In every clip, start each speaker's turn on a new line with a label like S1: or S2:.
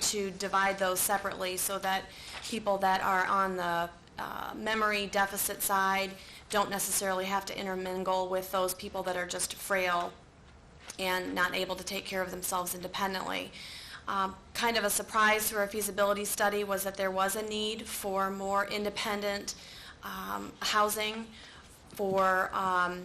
S1: to divide those separately so that people that are on the uh, memory deficit side don't necessarily have to intermingle with those people that are just frail and not able to take care of themselves independently. Um, Kind of a surprise through our feasibility study was that there was a need for more independent um, housing for um,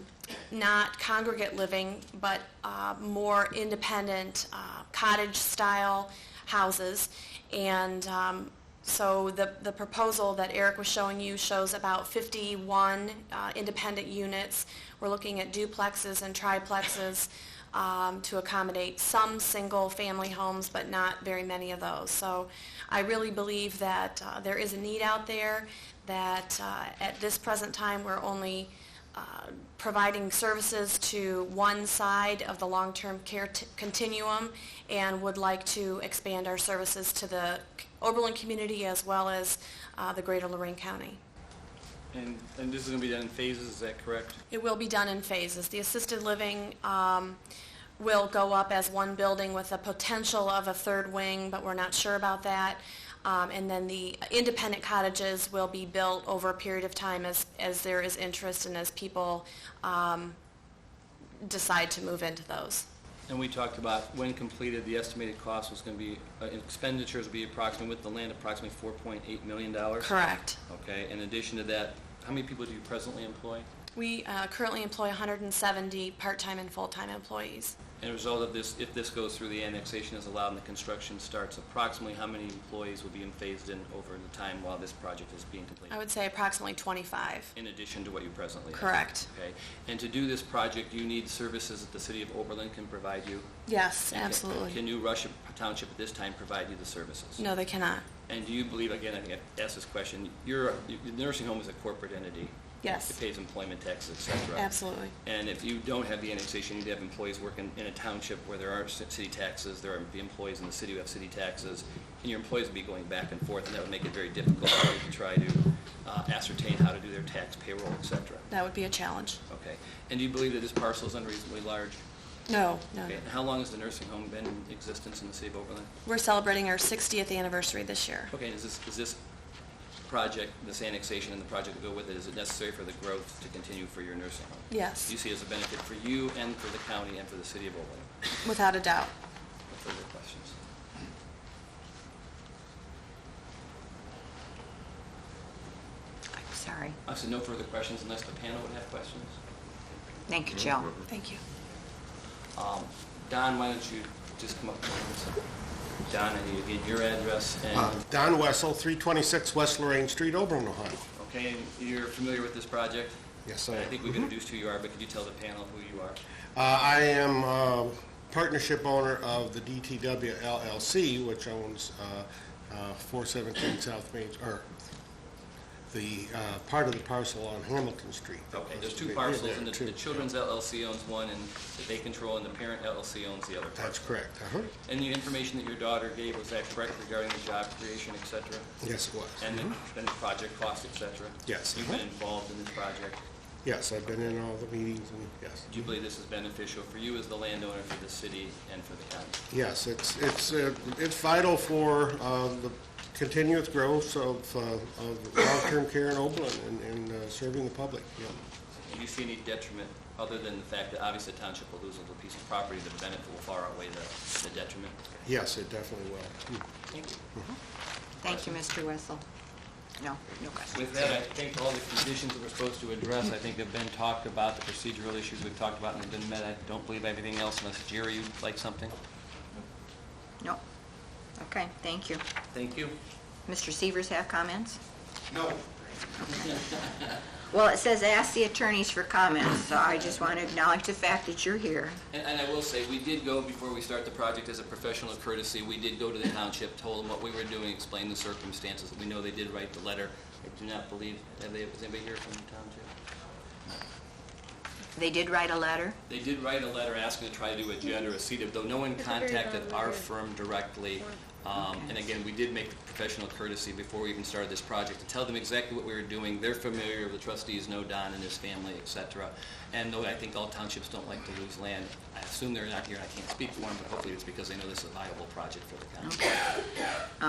S1: not congregate living, but uh, more independent uh, cottage-style houses. And um, so the, the proposal that Eric was showing you shows about 51 uh, independent units. We're looking at duplexes and triplexes um, to accommodate some single-family homes, but not very many of those. So I really believe that uh, there is a need out there, that uh, at this present time, we're only uh, providing services to one side of the long-term care t- continuum and would like to expand our services to the Oberlin community as well as uh, the greater Lorraine County.
S2: And, and this is gonna be done in phases, is that correct?
S1: It will be done in phases. The assisted living um, will go up as one building with the potential of a third wing, but we're not sure about that. Um, And then the independent cottages will be built over a period of time as, as there is interest and as people um, decide to move into those.
S2: And we talked about when completed, the estimated cost was gonna be, uh, expenditures would be approximately, with the land, approximately four point eight million dollars.
S1: Correct.
S2: Okay, in addition to that, how many people do you presently employ?
S1: We uh, currently employ 170 part-time and full-time employees.
S2: And a result of this, if this goes through, the annexation is allowed and the construction starts, approximately how many employees will be in- phased in over the time while this project is being
S1: I
S2: completed?
S1: would say approximately 25.
S2: In addition to what you presently have?
S1: Correct.
S2: Okay, and to do this project, you need services that the city of Oberlin can provide you?
S1: Yes,
S2: Okay.
S1: absolutely.
S2: Can New Russia Township at this time provide you the services?
S1: No, they cannot.
S2: And do you believe, again, I think I asked this question, your, the nursing home is a corporate entity.
S1: Yes.
S2: It pays employment taxes, et cetera.
S1: Absolutely.
S2: And if you don't have the annexation, you'd have employees working in a township where there are ci- city taxes, there are the employees in the city who have city taxes, and your employees would be going back and forth, and that would make it very difficult for you to try to uh, ascertain how to do their tax payroll, et cetera.
S1: That would be a challenge.
S2: Okay. And do you believe that this parcel is unreasonably large?
S1: No, no.
S2: Okay. And how long has the nursing home been in existence in the city of Oberlin?
S1: We're celebrating our 60th anniversary this year.
S2: Okay, is this, is this project, this annexation and the project that go with it, is it necessary for the growth to continue for your nursing home?
S1: Yes.
S2: Do you see it as a benefit for you and for the county and for the city of Oberlin?
S1: Without a doubt.
S2: No further questions?
S3: I'm sorry.
S2: I said no further questions unless the panel would have questions.
S3: Thank you, Jill.
S1: Thank you.
S2: Um, Don, why don't you just come up? Don, I need to get your address
S4: Uh,
S2: and,
S4: Don Wessel, 326 West Lorraine Street, Oberlin, Ohio.
S2: okay, and you're familiar with this project?
S4: Yes, I am. Mm-hmm.
S2: I think we've introduced who you are, but could you tell the panel who you are?
S4: Uh, I am uh, partnership owner of the DTW LLC, which owns uh, uh, 417 South Main, or the, uh, part of the parcel on Hamilton Street.
S2: Okay, there's two
S4: Yeah,
S2: parcels, and the
S4: two.
S2: the children's LLC owns one, and that they control, and the parent LLC owns the other
S4: That's
S2: parcel.
S4: correct. Uh-huh.
S2: And the information that your daughter gave, was that correct regarding the job creation, et cetera?
S4: Yes, it was.
S2: And the, and the project cost, et cetera?
S4: Mm-hmm. Yes.
S2: You've been involved in this project.
S4: Yes, I've been in all the meetings and, yes.
S2: Do you believe this is beneficial for you as the landowner, for the city, and for the county?
S4: Yes, it's, it's, uh, it's vital for uh, the continuous growth of, uh, of long-term care in Oberlin and- and uh, serving the public, yeah.
S2: Do you see any detriment, other than the fact that obviously the township will lose a little piece of property, the benefit will far outweigh the, the detriment?
S4: Yes, it definitely will.
S2: Thank you.
S3: Thank you, Mr. Wessel. No, no questions.
S2: With that, I think all the conditions that we're supposed to address, I think have been talked about, the procedural issues we've talked about and have been met. I don't believe anything else unless Jerry, you'd like something?
S3: No. Okay, thank you.
S2: Thank you.
S3: Mr. Severs have comments?
S4: No.
S3: Well, it says ask the attorneys for comments, so I just want to acknowledge the fact that you're here.
S2: And, and I will say, we did go, before we start the project, as a professional courtesy, we did go to the township, told them what we were doing, explained the circumstances. We know they did write the letter. I do not believe, have they, is anybody here from the township?
S3: They did write a letter.
S2: They did write a letter asking to try to do a generous CEDAW, though no one contacted our firm directly. Um, And again, we did make the professional courtesy before we even started this project to tell them exactly what we were doing. They're familiar, the trustees know Don and his family, et cetera. And though I think all townships don't like to lose land, I assume they're not here, I can't speak for them, but hopefully it's because they know this is a viable project for the county.